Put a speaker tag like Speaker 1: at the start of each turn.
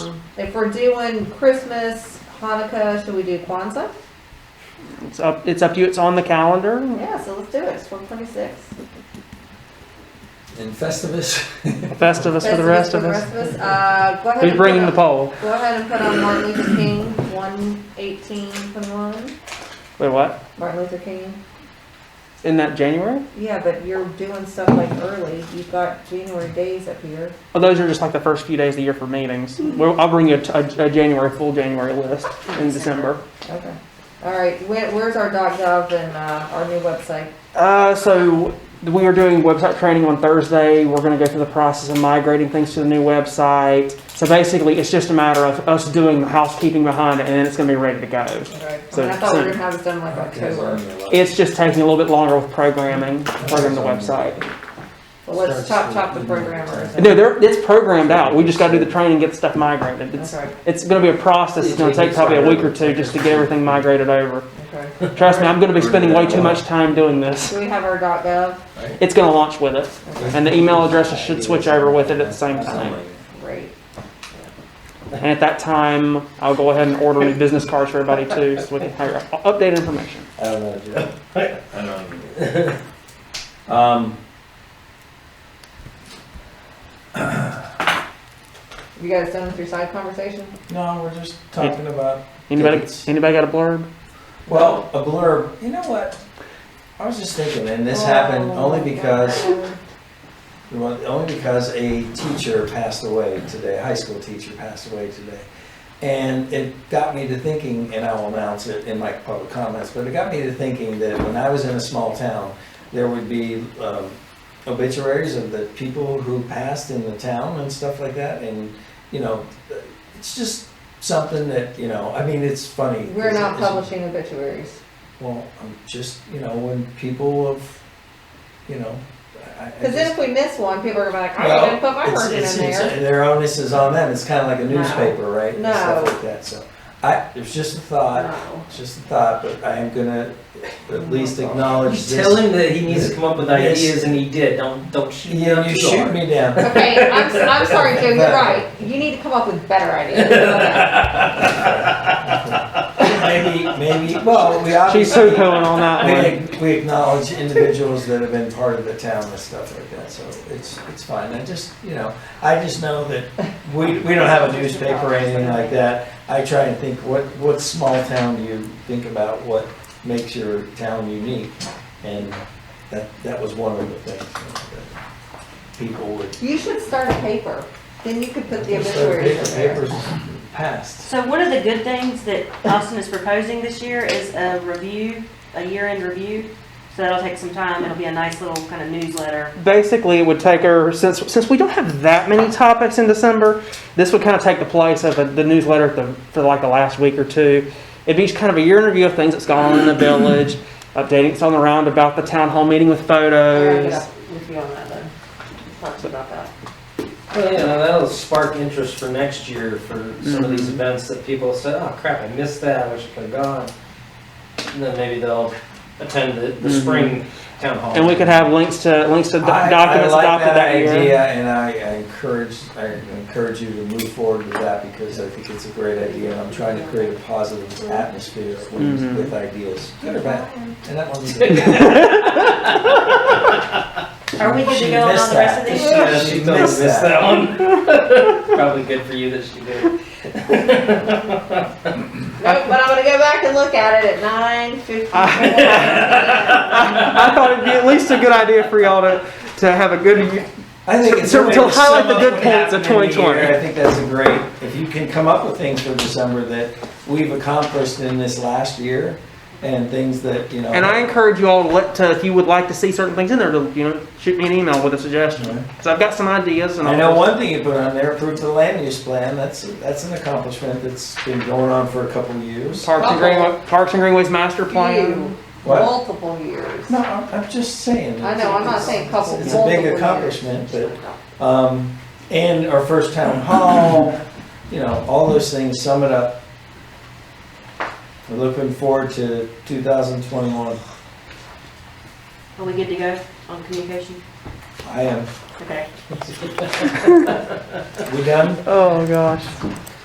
Speaker 1: If we're doing Christmas, Hanukkah, should we do Kwanzaa?
Speaker 2: It's up, it's up to you, it's on the calendar.
Speaker 1: Yeah, so let's do it, it's four twenty-six.
Speaker 3: And Festivus.
Speaker 2: Festivus for the rest of us.
Speaker 1: Uh, go ahead.
Speaker 2: Who's
Speaker 1: and
Speaker 2: bringing
Speaker 1: put
Speaker 2: the
Speaker 1: on-
Speaker 2: poll?
Speaker 1: Go ahead and put on Martin Luther King, one eighteen twenty-one,
Speaker 2: Wait, what?
Speaker 1: Martin Luther King.
Speaker 2: Isn't that January?
Speaker 1: Yeah, but you're doing stuff like early, you've got January days up here.
Speaker 2: Oh, those are just like the first few days of the year for meetings. Well, I'll bring you a, a January, full January list in December.
Speaker 1: Okay, all right, where, where's our dot gov and, uh, our new website?
Speaker 2: Uh, so we were doing website training on Thursday. We're going to go through the process of migrating things to the new website. So basically, it's just a matter of us doing the housekeeping behind it, and then it's going to be ready to go.
Speaker 1: All right. I
Speaker 2: So-
Speaker 1: mean, I thought we were
Speaker 2: so-
Speaker 1: gonna have this done like October,
Speaker 2: It's just taking a little bit longer with programming, programming the website.
Speaker 1: but let's chop, chop the programmers.
Speaker 2: No, they're, it's programmed out. We just got to do the training, get stuff migrated. It's,
Speaker 1: Okay,
Speaker 2: it's going to be a process. It's going to take probably a week or two just to get everything migrated over.
Speaker 1: okay.
Speaker 2: Trust me, I'm going to be spending way too much time doing this.
Speaker 1: Do we have our dot gov?
Speaker 2: It's going to launch with it. And the email addresses should switch over with it at the same time.
Speaker 1: Great.
Speaker 2: And at that time, I'll go ahead and order new business cards for everybody too, so we can have updated information.
Speaker 3: I don't know, Joe. I don't know. Um,
Speaker 1: You guys done with your side conversation?
Speaker 4: No, we're just talking about,
Speaker 2: Anybody, anybody got a blurb?
Speaker 4: well, a blurb. You know what? I was just thinking, and
Speaker 1: Oh,
Speaker 4: this happened only because, well, only because a teacher passed away today, a high school teacher passed away today. And it got me to thinking, and I will announce it in my public comments, but it got me to thinking that when I was in a small town, there would be um, obituaries of the people who passed in the town and stuff like that. And, you know, it's just something that, you know, I mean, it's funny.
Speaker 1: We're not
Speaker 4: It's-
Speaker 1: publishing obituaries.
Speaker 4: Well, I'm just, you know, when people of, you know, I, I
Speaker 1: Cause then
Speaker 4: just-
Speaker 1: if we miss one, people are gonna be like, I
Speaker 4: Well,
Speaker 1: didn't put my
Speaker 4: it's-
Speaker 1: word in
Speaker 4: it's- it's-
Speaker 1: there.
Speaker 4: Their onus is on them, it's kinda like a
Speaker 1: No.
Speaker 4: newspaper, right? And Stuff
Speaker 1: No.
Speaker 4: like that, so, I, it's just a thought,
Speaker 1: No.
Speaker 4: it's just a thought, but I am gonna at least acknowledge
Speaker 5: Just
Speaker 4: this.
Speaker 5: tell him that he needs to come up with
Speaker 4: Yes.
Speaker 5: ideas, and he did. Don't don't shoot. him
Speaker 4: Yeah,
Speaker 5: up
Speaker 4: you
Speaker 5: too
Speaker 4: shoot
Speaker 5: hard.
Speaker 4: me down.
Speaker 1: Okay, I'm, s- I'm sorry, Joe, you're right. You need to come up with better ideas. Okay.
Speaker 4: Maybe, maybe, well, we obviously.
Speaker 2: She's so going on that one.
Speaker 4: We, we acknowledge individuals that have been part of the town and stuff like that, so it's, it's fine. I just, you know, I just know that we, we don't have a newspaper or anything like that. I try and think, what, what small town do you think about what makes your town unique? And that, that was one of the things that people would.
Speaker 1: You should start a paper, then you could put the
Speaker 4: So
Speaker 1: obituaries in there.
Speaker 4: Papers passed.
Speaker 6: So one of the good things that Austin is proposing this year is a review, a year-end review. So that'll take some time. It'll be a nice little kind of newsletter.
Speaker 2: Basically, it would take her, since, since we don't have that many topics in December, this would kind of take the place of the newsletter at the, for like the last week or two. It'd be kind of a year in review of things that's gone on in the village, updating us on the round about the town hall meeting with
Speaker 1: All right, get
Speaker 2: photos.
Speaker 1: up with you on that then. Talk to you about that.
Speaker 5: Well, yeah, now that'll spark interest for next year for some of these
Speaker 2: Mhm.
Speaker 5: events that people said, "Oh crap, I missed that. I wish I could have gone." And then maybe they'll attend the, the
Speaker 2: Mhm.
Speaker 5: spring town hall.
Speaker 2: And we could have links to, links to
Speaker 4: I-
Speaker 2: doc- documents
Speaker 4: I like
Speaker 2: adopted
Speaker 4: that
Speaker 2: that year.
Speaker 4: idea, and I I encourage, I encourage you to move forward with that, because I think it's a great idea, and I'm trying to create a positive atmosphere
Speaker 2: Mhm.
Speaker 4: with, with ideas, good or bad, and that one's.
Speaker 6: Are we good to
Speaker 4: She
Speaker 6: go on all
Speaker 4: missed
Speaker 6: the rest of
Speaker 4: that.
Speaker 6: this?
Speaker 5: Yeah, she
Speaker 4: She
Speaker 5: totally
Speaker 4: missed
Speaker 5: missed that one. Probably good for you that she did.
Speaker 1: Nope, but I'm gonna go back and look at it at nine fifty-four.
Speaker 2: I thought it'd be at least a good idea for y'all to, to have a good
Speaker 4: I think it's.
Speaker 2: To-
Speaker 4: a way
Speaker 2: to
Speaker 4: sum
Speaker 2: highlight the
Speaker 4: up
Speaker 2: good
Speaker 4: what
Speaker 2: points of
Speaker 4: happened in the
Speaker 2: 2020.
Speaker 4: year. I think that's a great, if you can come up with things for December that we've accomplished in this last year, and things that, you know.
Speaker 2: And I encourage you all to, let, to if you would like to see certain things in there, to you know, shoot me an email with a suggestion.
Speaker 4: Yeah.
Speaker 2: Because I've got some ideas, and
Speaker 4: I
Speaker 2: I'll
Speaker 4: know
Speaker 2: just-
Speaker 4: one thing you put on there, approved the land use plan, that's, that's an accomplishment that's been going on for a couple of years.
Speaker 2: Parks and Greenway, Parks and Greenways master plan.
Speaker 1: You,
Speaker 4: What?
Speaker 1: multiple years.
Speaker 4: No, I'm, I'm just saying.
Speaker 1: I know, I'm not saying couple,
Speaker 4: It's
Speaker 1: multiple
Speaker 4: a
Speaker 1: years.
Speaker 4: big accomplishment, but, um, and our first town hall, you know, all those things sum it up. We're looking forward to two thousand twenty-one.
Speaker 6: Are we good to go on communication?
Speaker 4: I am,
Speaker 6: Okay.
Speaker 4: we done?
Speaker 2: Oh gosh.